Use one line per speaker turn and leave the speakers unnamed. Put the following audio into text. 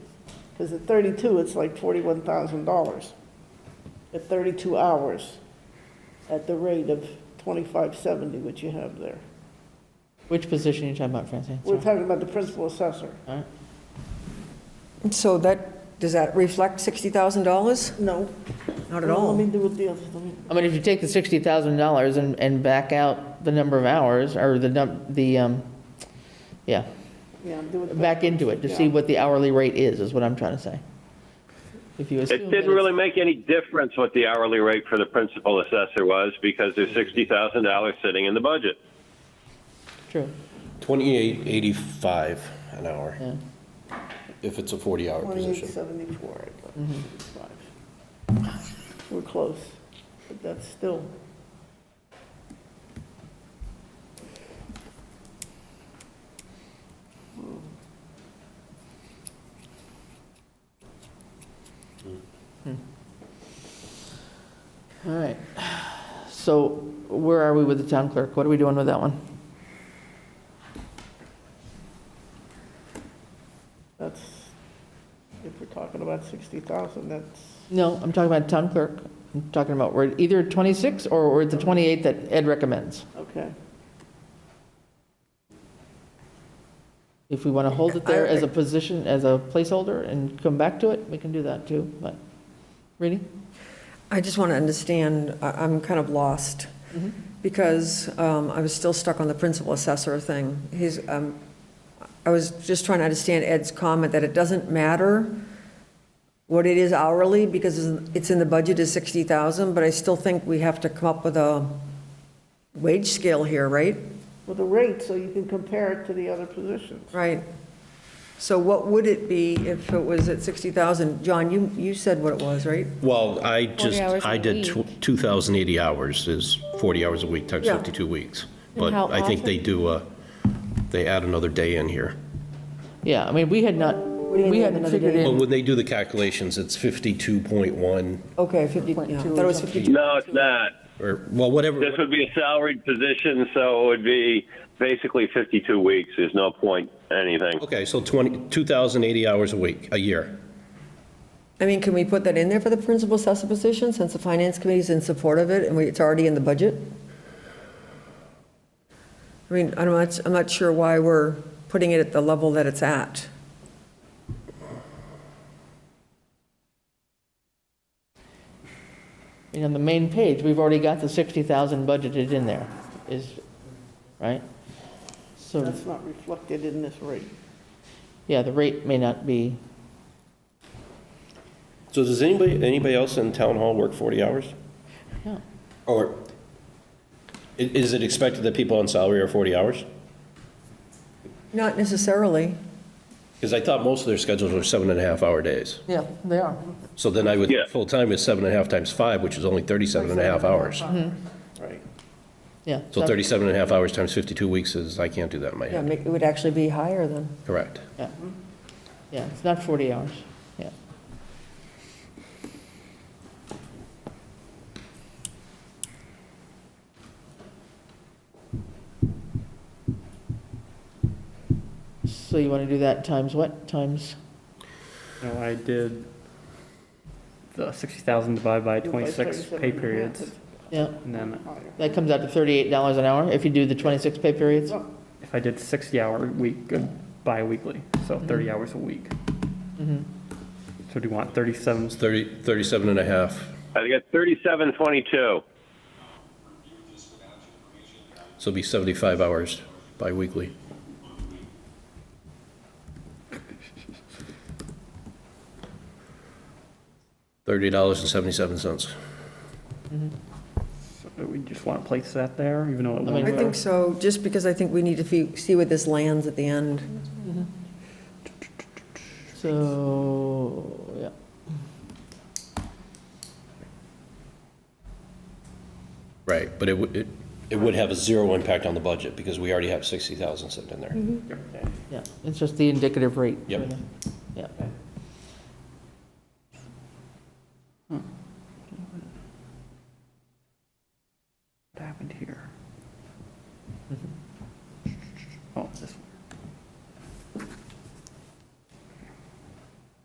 Because at 32, it's like $41,000 at 32 hours at the rate of 2570, which you have there.
Which position are you talking about, Francine?
We're
Sorry.
talking about the principal assessor.
All right.
So that, does that reflect $60,000?
No.
Not at
No, Let
all.
me do it the other, let me,
I mean, if you take the $60,000 and, and back out the number of hours, or the, num- the, um, yeah,
yeah, do it.
back into it to see
Yeah.
what the hourly rate is, is what I'm trying to say. If you assume.
It
that
didn't
it's-
really make any difference what the hourly rate for the principal assessor was because there's $60,000 sitting in the budget.
True,
Twenty-eight eighty-five an hour,
yeah.
if it's a forty-hour position.
2874. I thought,
Mm-hmm.
75. We're close, but that's still,
All right. So where are we with the town clerk? What are we doing with that one?
that's, if we're talking about 60,000, that's,
No, I'm talking about town clerk. I'm talking about, we're at either at 26 or we're at the 28 that Ed recommends.
okay.
If we want to hold it there as a position, as a placeholder and come back to it, we can do that too, but, Reedy?
I just want to understand, I- I'm kind of lost, because um, I was still stuck on the principal assessor thing. He's, um, I was just trying to understand Ed's comment that it doesn't matter what it is hourly, because it's in the budget is 60,000, but I still think we have to come up with a wage scale here, right?
Well, the rate, so you can compare it to the other positions.
Right. So what would it be if it was at 60,000? John, you, you said what it was, right?
Well, I just,
hours
I
a
did
week.
two thousand eighty hours is forty hours a week times
Yeah.
fifty-two weeks. But
how
I think they do, uh, they add another day in here.
Yeah, I mean, we had not,
do you
we
mean
hadn't
another
figured
day?
Well,
in,
when they do the calculations, it's fifty-two point one,
Okay, 50, yeah, I thought it was 52.
No, it's not.
or, well, whatever.
This would be a salaried position, so it would be basically 52 weeks. There's no point anything.
Okay, so twenty, two thousand eighty hours a week, a year.
I mean, can we put that in there for the principal assessor position, since the finance committee's in support of it, and we- it's already in the budget? I mean, I'm not, I'm not sure why we're putting it at the level that it's at.
you know, the main page, we've already got the 60,000 budgeted in there, is, right? So,
That's not reflected in this rate.
yeah, the rate may not be,
So does anybody, anybody else in town hall work forty hours?
yeah.
Or i- is it expected that people on salary are forty hours?
Not necessarily.
Because I thought most of their schedules were seven and a half hour days.
Yeah, they are.
So then I would,
Yeah.
full-time is seven and a half times five, which is only 37 and a half hours.
Right.
Yeah.
So 37 and a half hours times 52 weeks is, I can't do that in my
Yeah,
head.
make- it would actually be higher then.
Correct.
Yeah, yeah, it's not 40 hours, yeah. So you want to do that times what, times,
No, I did the sixty thousand divided by twenty-six pay periods,
yeah,
and then
that comes out to $38 an hour if you do the 26 pay periods?
if I did sixty-hour week, uh, bi-weekly, so
Mm-hmm.
thirty hours a week. So do you want thirty-seven?
It's 30, 37 and a half.
I got 3722.
So it'd be 75 hours biweekly. $30.77.
so uh, We just want to place that there, even though it
mean-
won't.
I think so, just because I think we need to fe- see where this lands at the end.
So, yeah.
Right, but it would, it- it would have a zero impact on the budget because we Mm-hmm. already have 60,000 sitting in there.
Yeah, it's just the indicative rate.
Yep.
Yeah.
Mm-hmm.
Oh,